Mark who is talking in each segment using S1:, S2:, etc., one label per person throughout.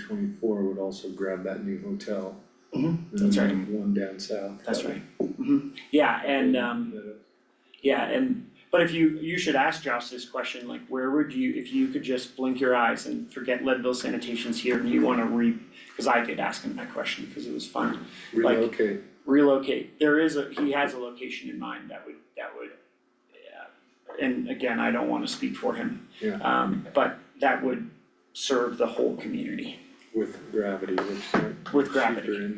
S1: twenty-four would also grab that new hotel.
S2: Mhm,
S1: The
S2: that's right.
S1: One down south.
S2: That's right. Mhm. Yeah, and um, yeah, and, but if you, you should ask Josh this question, like, where would you, if you could just blink your eyes and forget Leadville sanitation's here and you wanna re, cause I did ask him that question, cause it was fun. like-
S1: Relocate,
S2: Relocate, there is a, he has a location in mind that would, that would, yeah, and again, I don't wanna speak for him.
S1: Yeah.
S2: Um, but that would serve the whole community
S1: with gravity, which is
S2: with
S1: cheaper
S2: gravity.
S1: in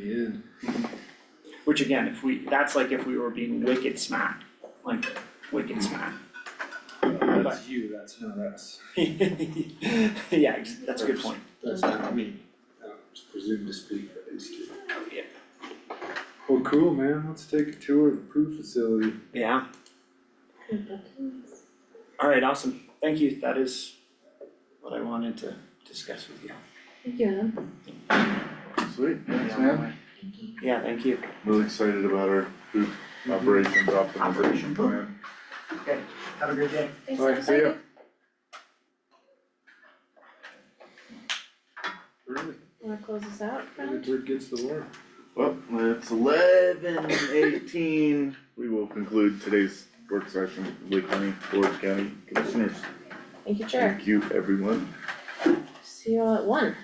S1: the end.
S2: Which again, if we, that's like if we were being wicked smack, like wicked smack.
S1: That's you, that's not us,
S2: Yeah, ex- that's a good point.
S1: that's not me, I don't presume to speak for these two.
S2: Oh, Yeah.
S1: Well, cool, man, let's take a tour of the proof facility.
S2: Yeah. Alright, awesome. Thank you. That is what I wanted to discuss with you.
S3: Yeah.
S4: Sweet, thanks man.
S2: Yeah, thank you.
S4: Really excited about our food operations optimization plan.
S2: Okay, have a great day.
S3: Thanks,
S4: Alright, see ya.
S1: Really?
S3: Wanna close this out,
S1: The
S3: Fran?
S1: bird gets the worm.
S4: Well, it's eleven eighteen. We will conclude today's work session, with Lake County, Board County Commissioners.
S3: Thank you, Chair.
S4: Thank you, everyone.
S3: See you all at one.